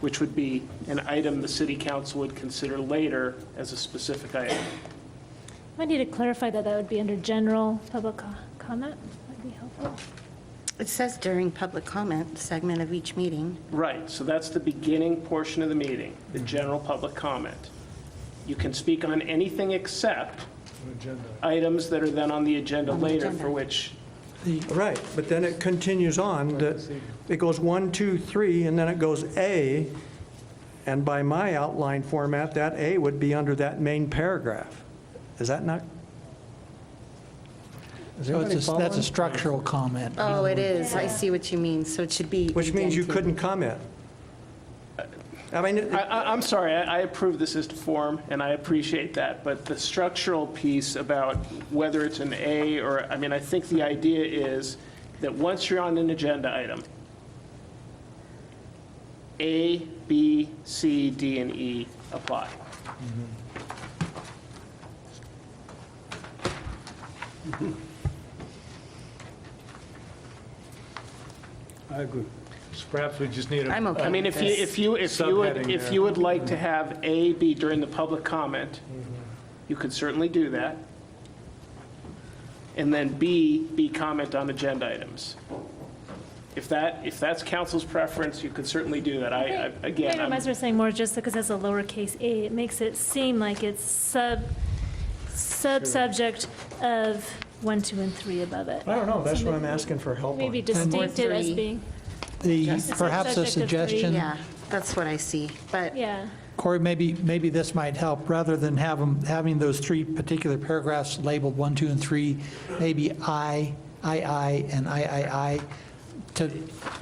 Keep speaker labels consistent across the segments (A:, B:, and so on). A: which would be an item the city council would consider later as a specific item.
B: I need to clarify that that would be under general public co- comment. That'd be helpful.
C: It says during public comment segment of each meeting.
A: Right, so that's the beginning portion of the meeting, the general public comment. You can speak on anything except items that are then on the agenda
C: On the
A: later
C: agenda.
A: for which,
D: Right, but then it continues on, that it goes one, two, three, and then it goes A, and by my outline format, that A would be under that main paragraph. Is that not? Is
E: So
D: anybody
E: it's a, that's
D: following?
E: a structural comment.
C: Oh, it is. I see what you mean. So it should be.
D: Which means you
C: indented.
D: couldn't comment. I mean, it-
A: I, I, I'm sorry, I I approve this as to form, and I appreciate that, but the structural piece about whether it's an A or, I mean, I think the idea is that once you're on an agenda item, A, B, C, D, and E apply.
F: I agree. So Perhaps we just need a.
C: I'm okay.
A: I mean, if you, if you, if you would,
F: Subheading
A: if
F: there.
A: you would like to have A be during the public comment, you could certainly do that. And then B, be comment on agenda items. If that, if that's council's preference, you could certainly do that. I, I- again,
B: Maybe I might as
A: I'm-
B: well saying more just because it's a lowercase a, it makes it seem like it's sub, sub-subject of one, two, and three above it.
D: I don't know, that's what I'm asking for help
B: Maybe
D: on.
B: distinctive as
C: three.
B: being,
E: The,
B: It's a
E: perhaps
B: subject
E: a
B: of three.
E: suggestion,
C: Yeah, that's what I see. But
B: yeah.
E: Corey, maybe, maybe this might help, rather than have 'em- having those three particular paragraphs labeled one, two, and three, maybe I, I, I, and I, I, I, to,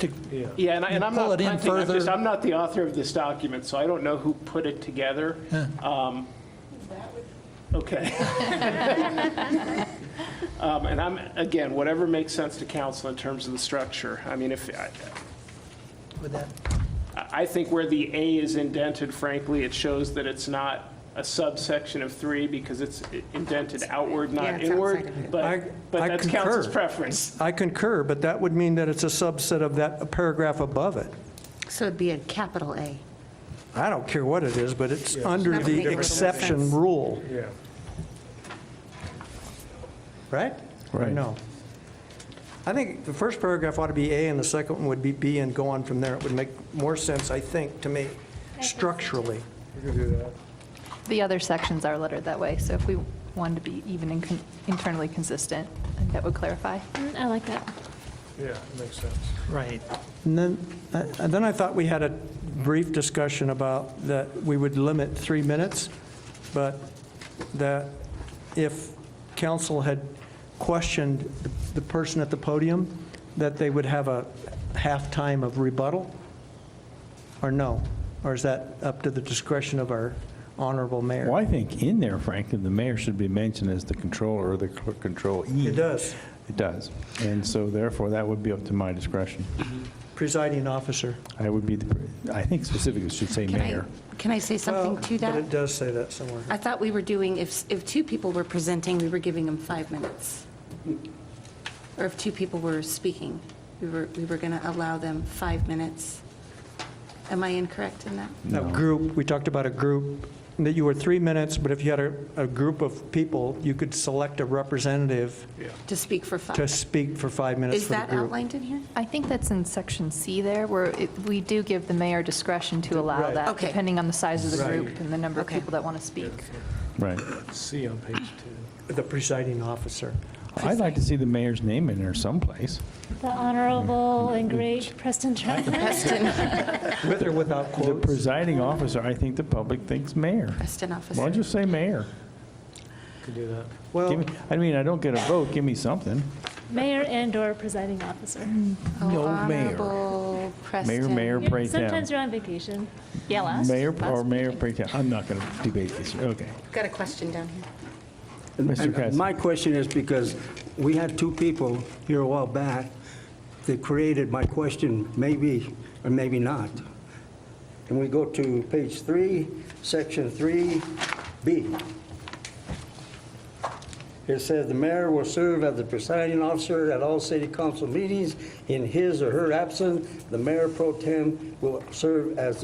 E: to,
A: yeah, and I- and I'm
E: Pull
A: not
E: it
A: punting,
E: in
A: I'm just,
E: further.
A: I'm not the author of this document, so I don't know who put it together. Um, Okay. Um, And I'm, again, whatever makes sense to council in terms of the structure. I mean, if, I-
E: with that,
A: I think where the A is indented, frankly, it shows that it's not a subsection of three because it's indented outward,
C: Yeah,
A: not
C: it's outside
A: inward.
C: of it.
D: I-
A: But, but
D: I
A: that's council's
D: concur.
A: preference.
D: I concur, but that would mean that it's a subset of that paragraph above it.
C: so it'd be a capital A.
D: I don't care what it is, but it's under
C: That would make
D: the
C: total
D: exception
C: sense.
D: rule,
F: Yeah.
D: right? Or
E: Right.
D: No. I think the first paragraph ought to be A, and the second one would be B, and go on from there. It would make more sense, I think, to me, structurally.
F: We can do that.
G: The other sections are lettered that way, so if we wanted to be even and con- internally consistent, I think that would clarify.
B: Mm, I like that.
F: Yeah, makes sense.
E: right.
D: And then, uh, and then I thought we had a brief discussion about that we would limit three minutes, but that if council had questioned the person at the podium, that they would have a halftime of rebuttal? Or no? Or is that up to the discretion of our honorable mayor?
H: Well, I think in there, frankly, the mayor should be mentioned as the controller or the cl- controllee.
D: It does.
H: It does. And so therefore, that would be up to my discretion.
D: Presiding officer.
H: I would be, the I think specifically it should say
C: Can I,
H: mayor.
C: can I say something
D: Well,
C: to
D: But
C: that?
D: it does say that somewhere.
C: I thought we were doing, if, if two people were presenting, we were giving them five minutes. Or if two people were speaking, we were, we were going to allow them five minutes. Am I incorrect in that?
D: A group, we talked about a group, that you were three minutes, but if you had a, a group of people, you could select a representative
C: To speak for five?
D: to speak for five minutes
C: Is
D: for the
C: that
D: group.
C: outlined in here?
G: I think that's in section C there, where it- we do give the mayor discretion to allow
D: Right.
G: that,
C: Okay.
G: depending on the size of the
D: Right.
G: group and the number of
C: Okay.
G: people that want to speak.
H: Right.
F: C on page two.
D: The presiding officer.
H: I'd like to see the mayor's name in there someplace.
B: The
H: Mm-hmm.
B: honorable and great Preston Chapman.
D: With or without
H: The
D: quotes?
H: presiding officer, I think the public thinks mayor.
C: Best in
H: Why
C: officer.
H: don't you say mayor?
F: Could do that.
H: Give
D: Well,
H: me, I mean, I don't get a vote, give me something.
B: Mayor and/or presiding officer.
H: Mm-hmm. No mayor.
C: Honorable
H: Mayor,
C: Preston.
H: mayor,
B: You're-
H: pro tem.
B: Sometimes you're on vacation.
G: Yeah,
H: Mayor or mayor pro tem. I'm not going to debate this, okay.
C: Got a question down here.
I: And-
H: Mr.
I: and
H: Cassidy.
I: My question is because we had two people here a while back that created my question, maybe or maybe not. And we go to page three, section three B. It says the mayor will serve as the presiding officer at all city council meetings. In his or her absence, the mayor pro tem will serve as